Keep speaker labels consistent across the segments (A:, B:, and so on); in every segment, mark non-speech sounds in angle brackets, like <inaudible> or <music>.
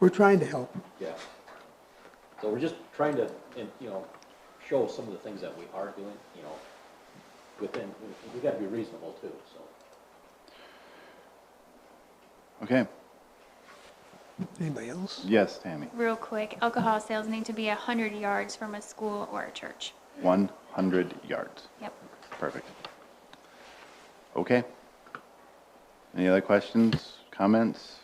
A: We're trying to help.
B: Yeah. So we're just trying to, and, you know, show some of the things that we are doing, you know, within, we- we gotta be reasonable too, so.
C: Okay,
A: Anybody else?
C: yes, Tammy,
D: Real quick, alcohol sales need to be 100 yards from a school or a church.
C: one hundred yards,
D: Yep.
C: perfect. Okay. Any other questions, comments?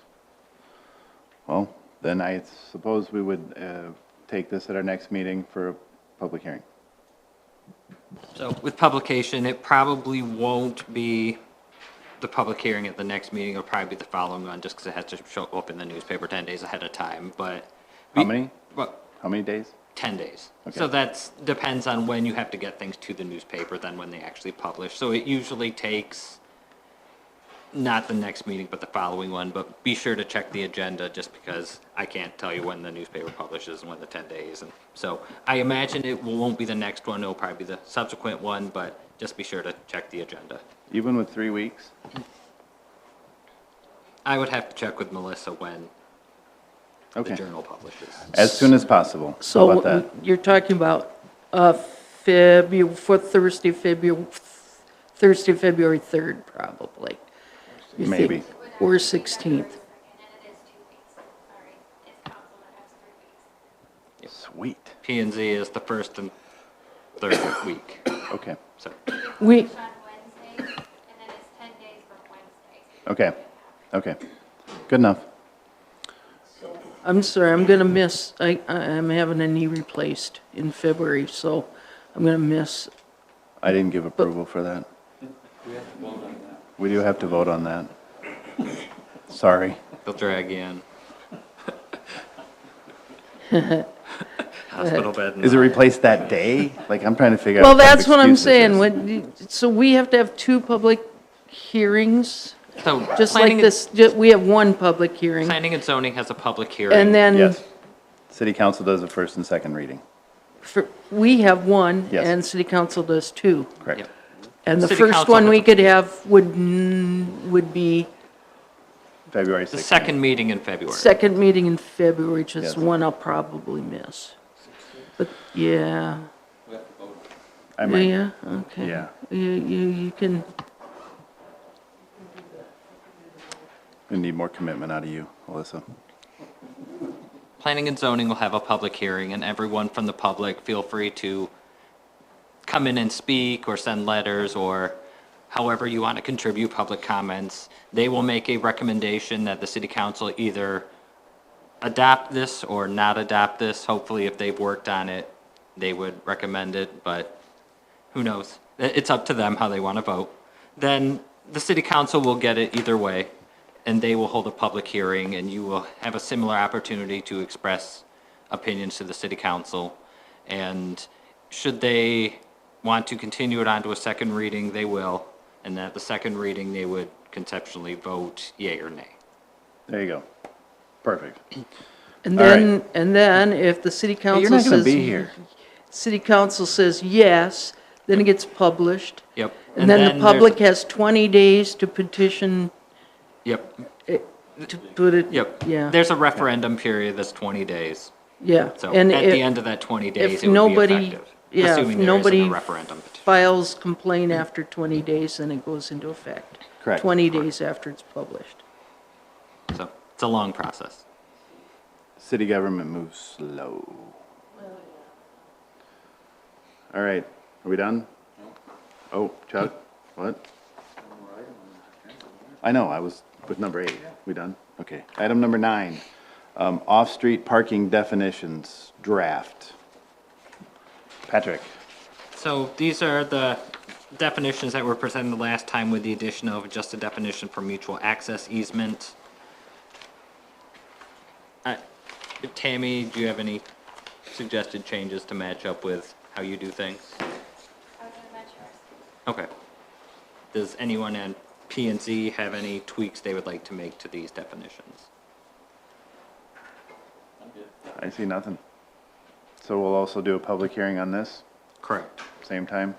C: Well, then I suppose we would, uh, take this at our next meeting for a public hearing.
E: So with publication, it probably won't be the public hearing at the next meeting. It'll probably be the following one, just because it has to show up in the newspaper 10 days ahead of time, but.
C: How many?
E: Well,
C: How many days?
E: 10 days. So
C: Okay.
E: that's, depends on when you have to get things to the newspaper, then when they actually publish. So it usually takes, not the next meeting, but the following one, but be sure to check the agenda, just because I can't tell you when the newspaper publishes and when the 10 days. And so I imagine it won't be the next one, it'll probably be the subsequent one, but just be sure to check the agenda.
C: Even with three weeks?
E: I would have to check with Melissa when the
C: Okay,
E: journal publishes.
C: as soon as possible. How
F: So
C: about that?
F: you're talking about uh, February, for Thursday, February, Thursday, February 3rd, probably. You think-
C: Maybe.
F: Or 16th.
C: Sweet,
E: P and Z is the first and third week,
C: okay,
E: so.
F: We,
C: okay, okay, good enough.
F: I'm sorry, I'm going to miss, I, I- I'm having a knee replaced in February, so I'm going to miss,
C: I didn't give approval for that. We do have to vote on that. Sorry.
E: They'll drag you
F: <laughs>
E: in. Hospital bed. and
C: Is it
E: all.
C: replaced that day? Like, I'm trying to figure out.
F: well,
C: kind of
F: that's what I'm
C: excuse this
F: saying.
C: is.
F: When- So we have to have two public hearings,
E: So
F: just like
E: Uh, planning and-
F: this, ju- we have one public hearing,
E: Planning and zoning has a public hearing.
F: and then
C: Yes. City council does the first and second reading,
F: for- we have one,
C: Yes.
F: and city council does two.
C: correct?
E: Yep.
F: And the
E: City
F: first
E: council
F: one we
E: has a-
F: could have would, n- would be
C: February 6th.
E: The second meeting in February.
F: second meeting in February, which
C: Yes.
F: is one I'll probably miss. But, yeah,
C: I might,
F: yeah, okay.
C: Yeah.
F: You, you, you can,
C: we need more commitment out of you, Alyssa.
E: Planning and zoning will have a public hearing, and everyone from the public, feel free to come in and speak, or send letters, or however you want to contribute public comments. They will make a recommendation that the city council either adopt this or not adopt this. Hopefully, if they've worked on it, they would recommend it, but who knows? I- It's up to them how they want to vote. Then the city council will get it either way, and they will hold a public hearing, and you will have a similar opportunity to express opinions to the city council. And should they want to continue it on to a second reading, they will. And at the second reading, they would conceptually vote yea or nay.
C: There you go. Perfect.
F: and
C: All right.
F: then, and then if the city
C: Hey,
F: council
C: You're
F: says.
C: not going to be here.
F: City council says yes, then it gets published.
E: Yep.
F: And then the
E: there's-
F: public has twenty days to petition,
E: Yep,
F: to put it.
E: yep.
F: Yeah,
E: There's a referendum period that's 20 days.
F: yeah.
E: So at
F: And if-
E: the end of that 20 days,
F: if
E: it would be
F: nobody-
E: effective.
F: yeah, if
E: Assuming there isn't
F: nobody
E: a referendum petition.
F: files complaint after 20 days, then it goes into effect.
C: Correct.
F: 20 days after it's published.
E: So it's a long process.
C: City government moves slow. All right, are we done? Oh, Chuck, what? I know, I was with number eight. We done? Okay. Item number nine, um, off-street parking definitions draft. Patrick,
E: So these are the definitions that were presented the last time with the addition of just a definition for mutual access easement. I- Tammy, do you have any suggested changes to match up with how you do things? Okay. Does anyone at P and Z have any tweaks they would like to make to these definitions?
C: I see nothing. So we'll also do a public hearing on this,
E: Correct.
C: same time?